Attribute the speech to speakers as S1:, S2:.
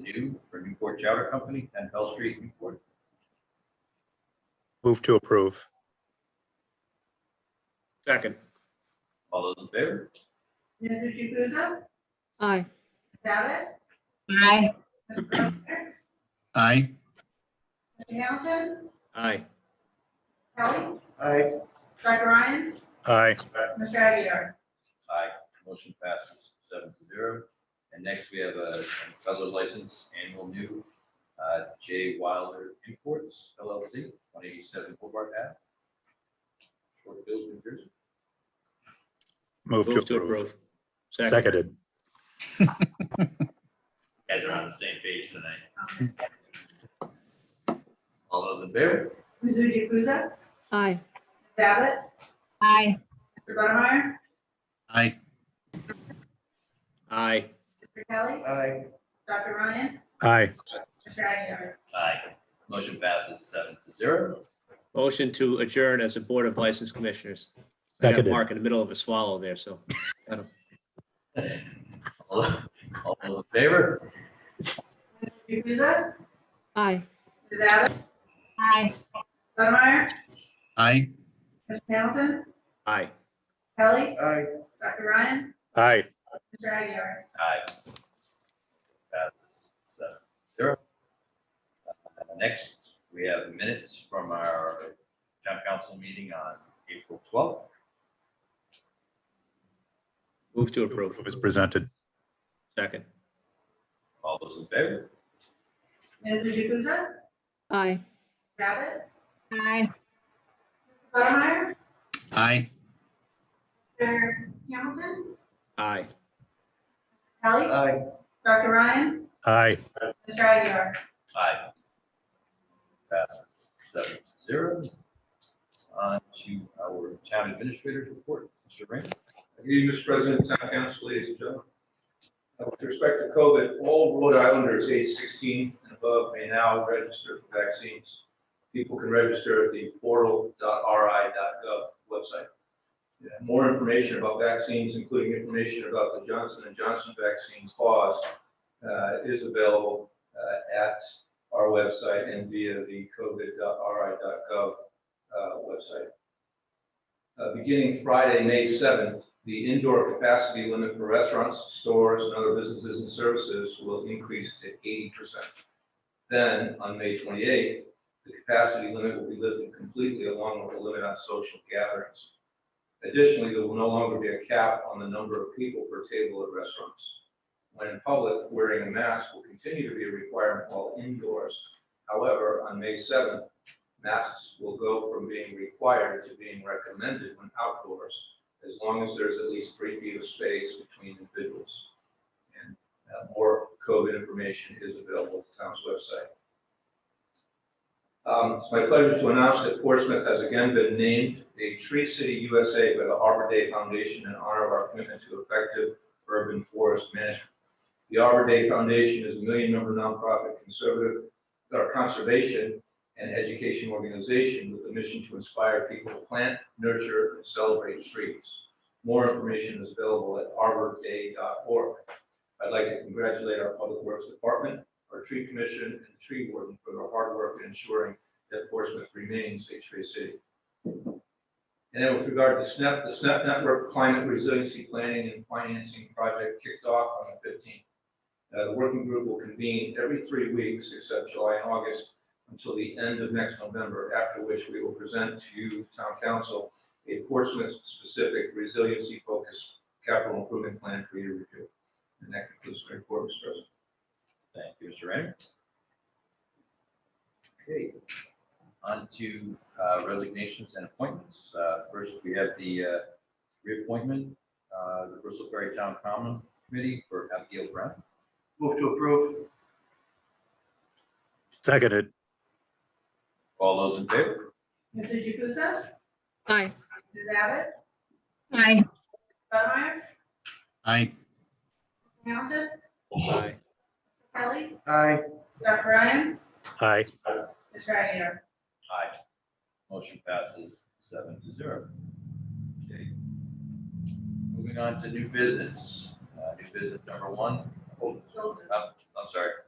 S1: New for Newport Chowder Company, 10 Bell Street, Newport.
S2: Move to approve.
S3: Second.
S1: All those in favor?
S4: Mrs. Jukusa?
S5: aye,
S4: Abbott?
S6: aye,
S4: Mr. Grosvenor?
S7: aye,
S4: Mr. Hamilton?
S3: Aye.
S4: Kelly?
S8: aye,
S4: Dr. Ryan?
S2: Aye.
S4: Mr. Aguirre?
S1: Aye. Motion passes seven to zero. And next, we have a peddler license, annual new, uh, J Wilder Imports LLC, 187 Boulevard Ave. Short Hills, New Jersey.
S2: Move to approve. Seconded.
S1: Guys are on the same page tonight. All those in favor?
S4: Mrs. Jukusa?
S5: aye,
S4: Abbott?
S6: aye,
S4: Mr. Buttermeyer?
S7: aye,
S3: Aye.
S4: Mr. Kelly?
S8: aye,
S4: Dr. Ryan?
S2: Aye.
S4: Mr. Aguirre?
S1: Aye. Motion passes seven to zero.
S3: Motion to adjourn as the Board of License Commissioners. I got
S2: Seconded.
S3: Mark in the middle of a swallow there, so.
S1: All all those in favor?
S4: Mrs. Jukusa?
S5: aye,
S4: Mrs. Abbott?
S6: aye,
S4: Buttermeyer?
S7: aye,
S4: Mr. Hamilton?
S3: Aye.
S4: Kelly?
S8: aye.
S4: Dr. Ryan?
S2: Aye.
S4: Mr. Aguirre?
S1: Aye. Passes seven zero. Uh, Next, we have minutes from our town council meeting on April twelfth.
S3: Move to approve.
S2: It was presented.
S3: Second.
S1: All those in favor?
S4: Mrs. Jukusa?
S5: aye,
S4: Abbott?
S6: aye,
S4: Buttermeyer?
S7: aye,
S4: Mr. Hamilton?
S3: Aye.
S4: Kelly?
S8: Aye.
S4: Dr. Ryan?
S2: Aye.
S4: Mr. Aguirre?
S1: Aye. Passes seven to zero. On to our town administrator's report, Mr. Raymond.
S9: Good evening, Mr. President, Town Council, ladies and gentlemen. Uh, With respect to COVID, all Rhode Islanders age 16 and above may now register for vaccines. People can register at the portal.ri.gov website. Yeah, More information about vaccines, including information about the Johnson and Johnson vaccine clause, uh, is available uh, at our website and via the covid.ri.gov uh, website. Uh, Beginning Friday, May 7th, the indoor capacity limit for restaurants, stores, and other businesses and services will increase to 80%. Then, on May 28th, the capacity limit will be lifted completely along with the limit on social gatherings. Additionally, there will no longer be a cap on the number of people per table at restaurants. When in public, wearing a mask will continue to be a requirement while indoors. However, on May 7th, masks will go from being required to being recommended when outdoors, as long as there's at least three feet of space between individuals. And uh, more COVID information is available at the town's website. Um, It's my pleasure to announce that Portsmouth has again been named a Tree City USA by the Arbor Day Foundation in honor of our commitment to effective urban forest management. The Arbor Day Foundation is a million-member nonprofit conservative, or conservation and education organization with a mission to inspire people to plant, nurture, and celebrate trees. More information is available at arborday.org. I'd like to congratulate our Public Works Department, our Tree Commission, and the Tree Warden for their hard work in ensuring that Portsmouth remains a tree city. And then with regard to SNEP, the SNEP Network Climate Resiliency Planning and Financing Project kicked off on the 15th. Uh, The working group will convene every three weeks except July and August until the end of next November, after which we will present to you, town council, a Portsmouth-specific resiliency-focused capital improvement plan for your review. And that concludes my report, Mr. President.
S1: Thank you, Mr. Raymond. Okay, on to uh, resignations and appointments. Uh, First, we have the uh, reappointment, uh, the Bristol Ferry Town Common Committee for Abigail Brown.
S8: Move to approve,
S2: Seconded.
S1: All those in favor?
S4: Mrs. Jukusa?
S5: aye,
S4: Mrs. Abbott?
S6: aye,
S4: Buttermeyer?
S7: aye,
S4: Hamilton?
S3: Aye.
S4: Kelly?
S8: aye,
S4: Dr. Ryan?
S2: Aye.
S4: Mr. Aguirre?
S1: Aye. Motion passes seven to zero. Okay. Moving on to new business. Uh, New business number one. Oh, I'm I'm sorry,